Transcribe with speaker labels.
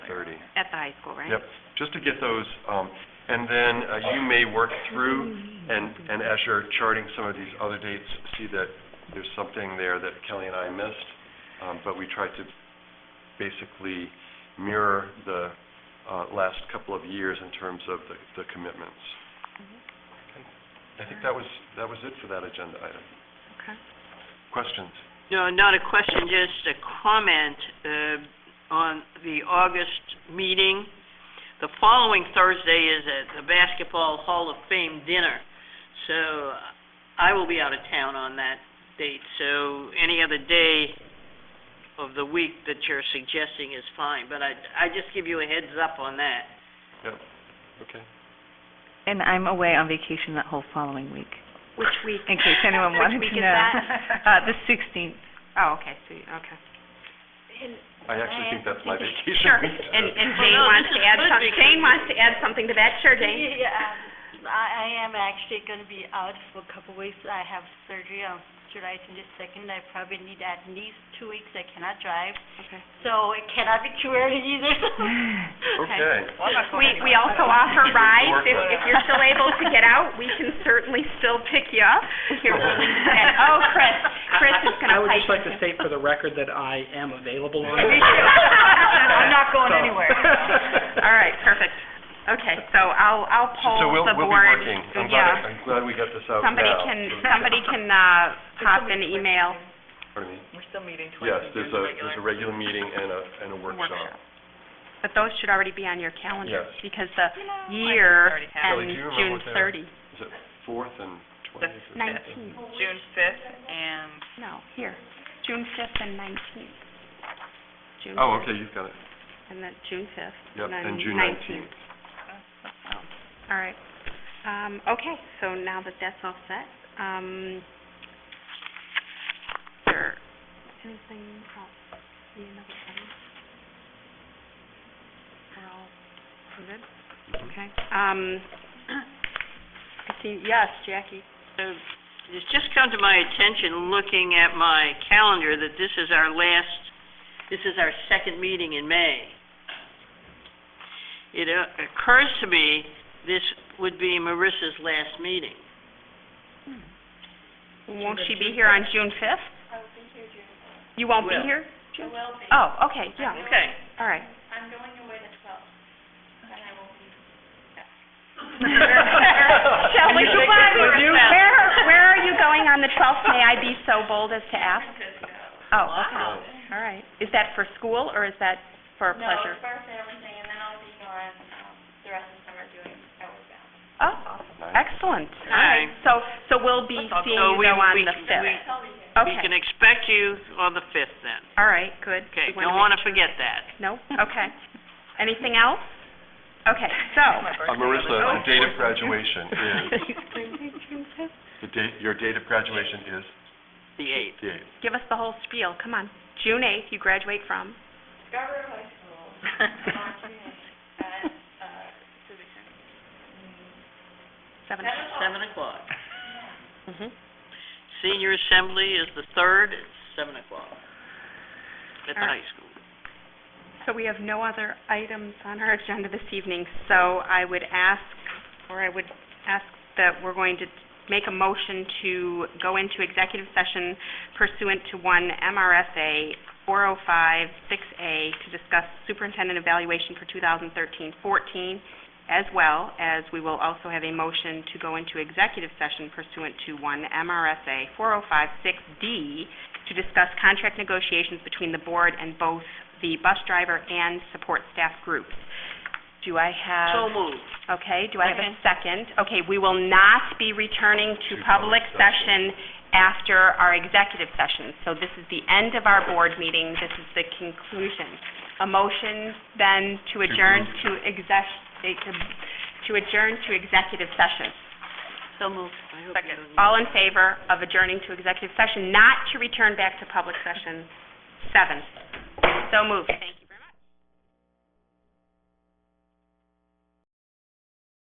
Speaker 1: thirty.
Speaker 2: at the high school, right?
Speaker 1: Yep, just to get those, um, and then uh, you may work through, and, and as you're charting some of these other dates, see that there's something there that Kelly and I missed, um, but we tried to basically mirror the, uh, last couple of years in terms of the, the commitments. I think that was, that was it for that agenda item.
Speaker 2: Okay.
Speaker 1: Questions?
Speaker 3: No, not a question, just a comment uh, on the August meeting. The following Thursday is at the Basketball Hall of Fame dinner, so I will be out of town on that date. So any other day of the week that you're suggesting is fine, but I, I just give you a heads up on that.
Speaker 1: Yep, okay.
Speaker 4: And I'm away on vacation that whole following week,
Speaker 2: Which week?
Speaker 4: in case anyone wanted to
Speaker 2: Which week
Speaker 4: know.
Speaker 2: is that?
Speaker 4: Uh, the sixteenth.
Speaker 2: Oh, okay, so, you- okay.
Speaker 1: I actually think that's my vacation.
Speaker 5: Sure,
Speaker 1: week, so-
Speaker 5: and, and
Speaker 3: Well,
Speaker 5: Jane
Speaker 3: Oh, no,
Speaker 5: wants to
Speaker 3: this is
Speaker 5: add
Speaker 3: good
Speaker 5: some,
Speaker 3: because-
Speaker 5: Jane wants to add something to that, sure, Jane.
Speaker 6: Yeah, um, I, I am actually gonna be out for a couple weeks. I have surgery on July twenty-second. I probably need at least two weeks. I cannot drive,
Speaker 2: Okay.
Speaker 6: so it cannot be too early either.
Speaker 1: Okay.
Speaker 5: We, we also offer rides, if, if you're still able to get out, we can certainly still pick you up. Here, and- oh, Chris, Chris is
Speaker 7: I
Speaker 5: gonna
Speaker 7: would
Speaker 5: pipe
Speaker 7: just like to
Speaker 5: in.
Speaker 7: state for the record that I am available on.
Speaker 5: Me too. I'm not going
Speaker 7: So-
Speaker 5: anywhere. All right, perfect. Okay, so I'll, I'll
Speaker 1: So- So
Speaker 5: poll
Speaker 1: we'll,
Speaker 5: the
Speaker 1: we'll be
Speaker 5: board.
Speaker 1: working. I'm glad,
Speaker 5: Yeah.
Speaker 1: I'm glad we got this out now.
Speaker 5: Somebody can, somebody can, uh, pop an email.
Speaker 1: Pardon me? We're still meeting twice Yes, there's a, there's a regular meeting and a, and a workshop.
Speaker 5: But those should already be on your calendar,
Speaker 1: Yes.
Speaker 5: because the year
Speaker 1: Kelly,
Speaker 5: ends
Speaker 1: do you remember
Speaker 5: June
Speaker 1: what they are?
Speaker 5: thirty.
Speaker 1: Is it fourth and twentieth? or
Speaker 5: Nineteenth,
Speaker 8: June fifth and
Speaker 5: no, here, June fifth and nineteenth. June
Speaker 1: Oh,
Speaker 5: fifth
Speaker 1: okay, you've got it.
Speaker 5: And then June fifth.
Speaker 1: Yep, and June
Speaker 5: nineteenth.
Speaker 1: nineteenth.
Speaker 5: All right. Um, okay, so now that that's all set, um, there, anything else? Need another item? We're all, we're good? Okay. Um, I see, yes, Jackie.
Speaker 3: Uh, It's just come to my attention, looking at my calendar, that this is our last, this is our second meeting in May. It uh, occurs to me this would be Marissa's last meeting.
Speaker 5: Won't she be here on June fifth? I won't be here
Speaker 3: Will.
Speaker 5: June. You won't be here? I will be. Oh, okay, yeah,
Speaker 3: Okay.
Speaker 5: all right.
Speaker 1: Shall
Speaker 5: Shelley, goodbye.
Speaker 1: With you?
Speaker 5: Where, where are you going on the twelfth? May I be so bold as to ask? Oh, okay,
Speaker 1: Wow.
Speaker 5: all right. Is that for school, or is that for
Speaker 6: No,
Speaker 5: pleasure?
Speaker 6: first everything, and then I'll be gone, um, the rest of summer doing outward bound.
Speaker 5: Oh, excellent, all right.
Speaker 3: Nice.
Speaker 5: So, so we'll be
Speaker 3: So
Speaker 5: seeing you
Speaker 3: we-
Speaker 5: though on
Speaker 3: we-
Speaker 5: the
Speaker 3: we-
Speaker 5: fifth?
Speaker 3: We can
Speaker 5: Okay,
Speaker 3: expect you on the fifth then.
Speaker 5: all right, good.
Speaker 3: Okay,
Speaker 5: We wanna make
Speaker 3: don't want to
Speaker 5: sure-
Speaker 3: forget that.
Speaker 5: No, okay. Anything else? Okay, so,
Speaker 1: Uh, Marissa,
Speaker 5: Oh.
Speaker 1: the date of graduation is, the date, your date of graduation is
Speaker 3: The eighth.
Speaker 1: the eighth.
Speaker 5: give us the whole spiel, come on. June eighth, you graduate from?
Speaker 6: Scarborough High School, launching at, uh, Civic Center.
Speaker 5: Seven.
Speaker 3: Seven o'clock.
Speaker 5: Mm-hmm.
Speaker 3: Senior assembly is the third, it's seven o'clock at the
Speaker 5: All right.
Speaker 3: high school.
Speaker 5: So we have no other items on our agenda this evening, so I would ask, or I would ask that we're going to make a motion to go into executive session pursuant to one MRSA 4056A to discuss superintendent evaluation for 2013-14, as well as we will also have a motion to go into executive session pursuant to one MRSA 4056D to discuss contract negotiations between the board and both the bus driver and support staff groups. Do I have?
Speaker 3: So moved.
Speaker 5: Okay, do I have a second? Okay, we will not be returning to public session after our executive session. So this is the end of our board meeting, this is the conclusion. A motion then to adjourn to exec, eh, to adjourn to executive session.
Speaker 3: So moved. Second.
Speaker 5: All in favor of adjourning to executive session, not to return back to public session seven. So moved, thank you.